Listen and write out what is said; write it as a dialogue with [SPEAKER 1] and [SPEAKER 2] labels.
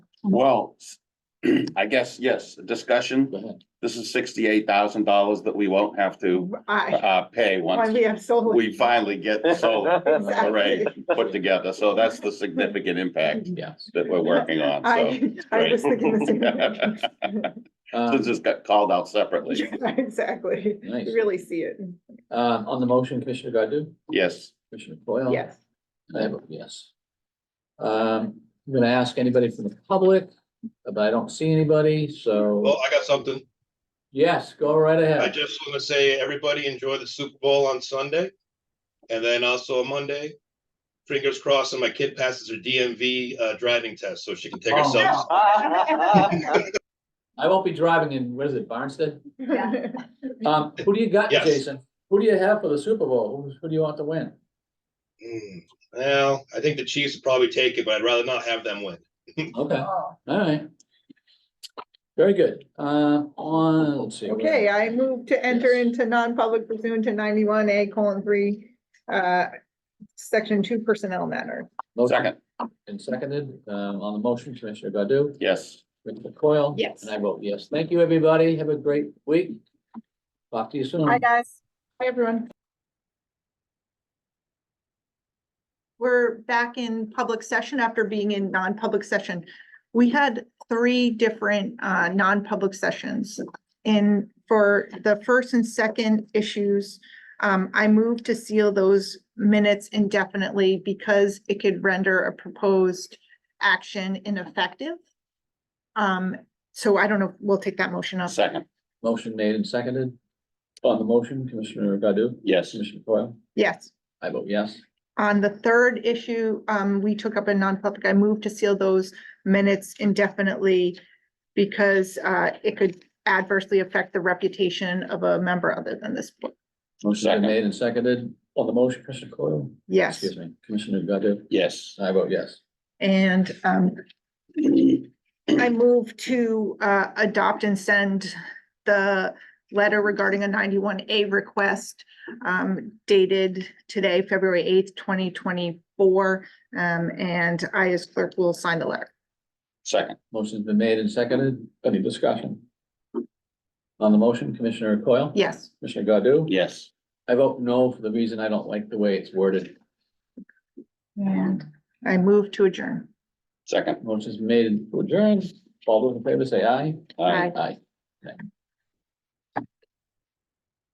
[SPEAKER 1] Well, I guess, yes, discussion.
[SPEAKER 2] Go ahead.
[SPEAKER 1] This is sixty-eight thousand dollars that we won't have to
[SPEAKER 3] I,
[SPEAKER 1] uh pay
[SPEAKER 3] why
[SPEAKER 1] once
[SPEAKER 3] we have so.
[SPEAKER 1] we finally get the solar
[SPEAKER 3] Exactly.
[SPEAKER 1] array put together. So that's the significant impact
[SPEAKER 2] Yes.
[SPEAKER 1] that we're working on, so.
[SPEAKER 3] I, I was thinking the
[SPEAKER 1] This
[SPEAKER 2] Um,
[SPEAKER 1] just got called out separately.
[SPEAKER 3] same. thing. Exactly,
[SPEAKER 2] Nice.
[SPEAKER 3] You really see it,
[SPEAKER 2] Uh, on the motion, Commissioner Godu,
[SPEAKER 1] Yes,
[SPEAKER 2] Commissioner Coyle?
[SPEAKER 3] yes.
[SPEAKER 2] I vote yes. Um, I'm gonna ask anybody from the public, uh, but I don't see anybody, so,
[SPEAKER 4] Well, I got something.
[SPEAKER 2] yes, go right
[SPEAKER 4] I
[SPEAKER 2] ahead.
[SPEAKER 4] just want to say, everybody enjoy the Super Bowl on Sunday. And then also Monday, fingers crossed, and my kid passes her DMV uh, driving test, so she can take
[SPEAKER 2] Oh.
[SPEAKER 4] herself.
[SPEAKER 2] I won't be driving in, what is it, Barnstead?
[SPEAKER 3] Yeah.
[SPEAKER 2] Um, who do you got,
[SPEAKER 4] Yes.
[SPEAKER 2] Jason? Who do you have for the Super Bowl? Who, who do you want to win?
[SPEAKER 4] Hmm, Well, I think the Chiefs would probably take it, but I'd rather not have them win.
[SPEAKER 2] Okay,
[SPEAKER 1] oh.
[SPEAKER 2] all right. Very good. Uh, on, let's see. what-
[SPEAKER 3] Okay, I move to enter
[SPEAKER 2] Yes.
[SPEAKER 3] into non-public pursuant to ninety-one A colon three, uh, section two personnel matter.
[SPEAKER 2] Motion
[SPEAKER 1] second,
[SPEAKER 2] And seconded, um, on the motion, Commissioner Godu?
[SPEAKER 1] yes.
[SPEAKER 2] Commissioner Coyle?
[SPEAKER 3] Yes.
[SPEAKER 2] And I vote yes. Thank you, everybody. Have a great week. Talk to you soon.
[SPEAKER 5] Hi, guys.
[SPEAKER 3] Hi, everyone. We're back in public session after being in non-public session. We had three different uh non-public sessions. And for the first and second issues, um, I moved to seal those minutes indefinitely because it could render a proposed action ineffective. Um, so I don't know, we'll take that motion up.
[SPEAKER 1] Second,
[SPEAKER 2] Motion made and seconded. On the motion, Commissioner Godu?
[SPEAKER 1] yes.
[SPEAKER 2] Commissioner Coyle?
[SPEAKER 3] Yes.
[SPEAKER 2] I vote yes.
[SPEAKER 3] On the third issue, um, we took up a non-public, I moved to seal those minutes indefinitely because, uh, it could adversely affect the reputation of a member other than this. board.
[SPEAKER 2] Motion
[SPEAKER 1] Second.
[SPEAKER 2] been made and seconded. On the motion, Commissioner Coyle?
[SPEAKER 3] Yes,
[SPEAKER 2] Excuse me, Commissioner Godu?
[SPEAKER 1] Yes,
[SPEAKER 2] I vote yes.
[SPEAKER 3] and, um, I move to, uh, adopt and send the letter regarding a ninety-one A request, um, dated today, February eighth, twenty twenty-four. Um, and I as clerk will sign the letter.
[SPEAKER 1] second,
[SPEAKER 2] Motion's been made and seconded. Any discussion? On the motion, Commissioner Coyle?
[SPEAKER 3] Yes.
[SPEAKER 2] Commissioner Godu?
[SPEAKER 1] yes.
[SPEAKER 2] I vote no for the reason I don't like the way it's worded.
[SPEAKER 3] And I move to adjourn.
[SPEAKER 1] Second,
[SPEAKER 2] Motion's made and adjourned. All those in favor say aye.
[SPEAKER 1] aye.
[SPEAKER 3] Aye.
[SPEAKER 2] Aye.